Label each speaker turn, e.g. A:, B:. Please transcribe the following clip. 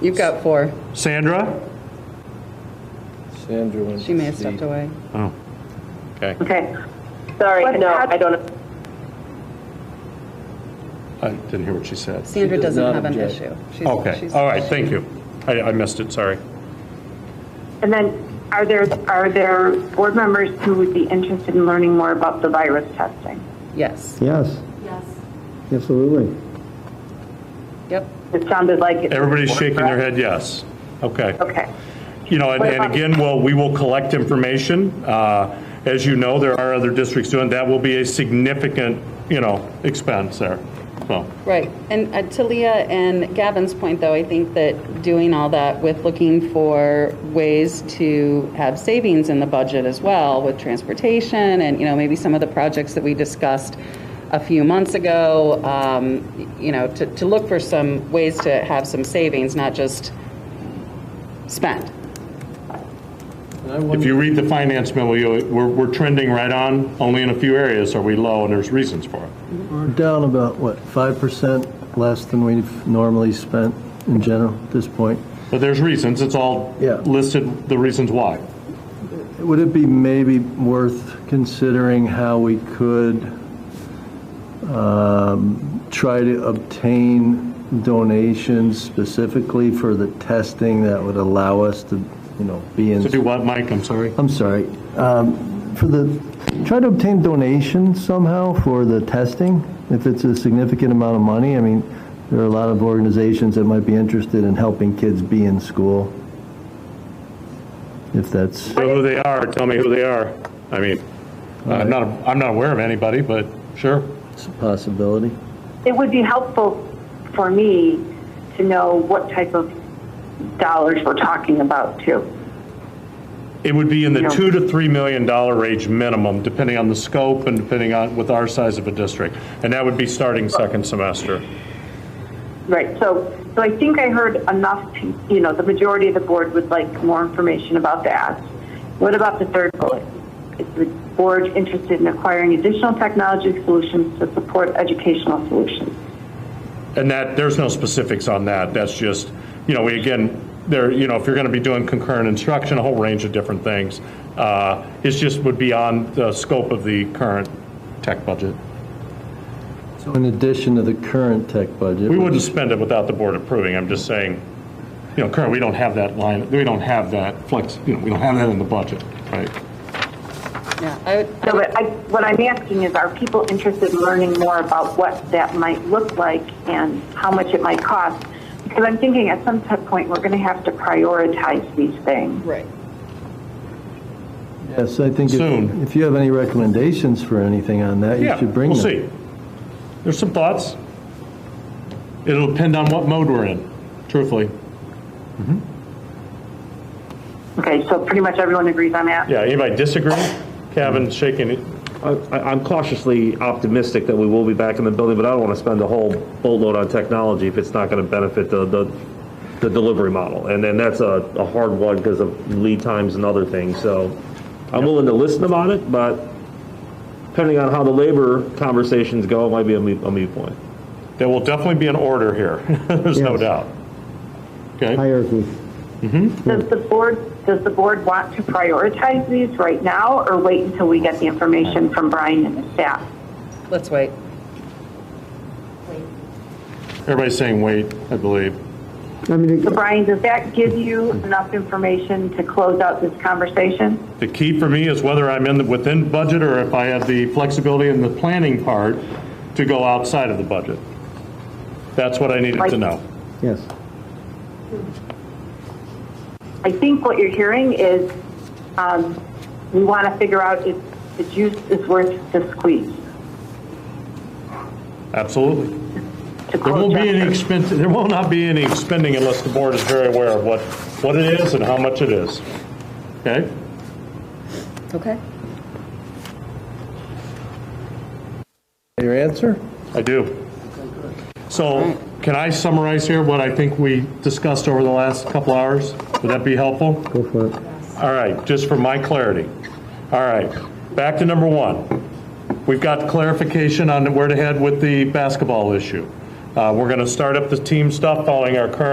A: You've got four.
B: Sandra?
C: Sandra went
A: She may
C: to
A: have stepped
C: sleep.
A: away.
B: Oh,
C: Okay.
D: Okay. Sorry, no, I don't.
B: I didn't hear what she said.
A: Sandra
C: does
A: doesn't
C: not
A: have an
C: object.
A: issue. She's-
B: Okay,
A: she's-
B: all right, thank you. I, I missed it, sorry.
D: And then, are there, are there board members who would be interested in learning more about the virus testing?
A: Yes,
E: Yes,
F: Yes.
E: absolutely.
A: yep.
D: It sounded like. it-
B: Everybody's shaking their head yes. Okay.
D: Okay.
B: You know, and, and again, well, we will collect information. Uh, As you know, there are other districts doing, that will be a significant, you know, expense there, so.
A: Right. And uh, to Leah and Gavin's point, though, I think that doing all that with looking for ways to have savings in the budget as well with transportation and, you know, maybe some of the projects that we discussed a few months ago, um, you know, to, to look for some ways to have some savings, not just spend.
C: And I
B: If
C: wonder,
B: you read the finance memo, you, we're, we're trending right on, only in a few areas are we low, and there's reasons for it.
G: We're down about, what, 5% less than we've normally spent in general at this point.
B: But there's reasons, it's all
G: Yeah.
B: listed, the reasons why.
G: Would it be maybe worth considering how we could um, try to obtain donations specifically for the testing that would allow us to, you know, be in
B: To do what, Mike, I'm sorry?
G: I'm sorry, um, for the, try to obtain donations somehow for the testing, if it's a significant amount of money. I mean, there are a lot of organizations that might be interested in helping kids be in school. If that's,
B: Know who they are, tell me who they are. I mean, I'm Uh, not, I'm not aware of anybody, but sure.
G: it's a possibility.
D: It would be helpful for me to know what type of dollars we're talking about too.
B: It would be in the
D: Yeah.
B: two to three million dollar range minimum, depending on the scope and depending on, with our size of a district. And that would be starting second semester.
D: Right, so, so I think I heard enough, pe- you know, the majority of the board would like more information about that. What about the third bullet? Is the board interested in acquiring additional technology solutions to support educational solutions?
B: And that, there's no specifics on that. That's just, you know, we, again, there, you know, if you're going to be doing concurrent instruction, a whole range of different things. uh, It's just would be on the scope of the current tech budget.
G: So in addition to the current tech budget.
B: We wouldn't spend it without the board approving. I'm just saying, you know, currently, we don't have that line, we don't have that flex, you know, we don't have that in the budget, right?
A: Yeah, I would,
D: So what I, what I'm asking is, are people interested in learning more about what that might look like and how much it might cost? Because I'm thinking at some t- point, we're going to have to prioritize these things.
A: right.
G: Yes, I think
B: Soon.
G: if, if you have any recommendations for anything on that, you
B: Yeah,
G: should bring
B: we'll
G: them.
B: see. There's some thoughts. It'll depend on what mode we're in, truthfully.
D: Okay, so pretty much everyone agrees on that?
B: Yeah, anybody disagree? Kevin's shaking, it.
H: I- I'm cautiously optimistic that we will be back in the building, but I don't want to spend a whole boatload on technology if it's not going to benefit the, the, the delivery model. And then that's a, a hard one because of lead times and other things. So I'm willing to listen about it, but depending on how the labor conversations go, it might be a moot, a moot point.
B: there will definitely be an order here, there's no
E: Yes.
B: doubt. Okay,
E: Hierarchy.
D: Does the board, does the board want to prioritize these right now or wait until we get the information from Brian and the staff?
A: Let's wait.
B: everybody's saying wait, I believe.
E: I mean,
D: So Brian, does that give you enough information to close out this conversation?
B: The key for me is whether I'm in, the- within budget or if I have the flexibility in the planning part to go outside of the budget. That's what I needed to know.
E: yes.
D: I think what you're hearing is, um, we want to figure out if the juice is worth the squeeze.
B: Absolutely. There
D: to close
B: won't be any
D: out-
B: expense, there will not be any expending unless the board is very aware of what, what it is and how much it is. Okay?
A: Okay.
G: Your answer?
B: I do. So can I summarize here what I think we discussed over the last couple hours? Would that be helpful?
E: Go for it.
B: All right, just for my clarity. All right, back to number one. We've got clarification on where to head with the basketball issue. Uh, We're going to start up the team stuff following our current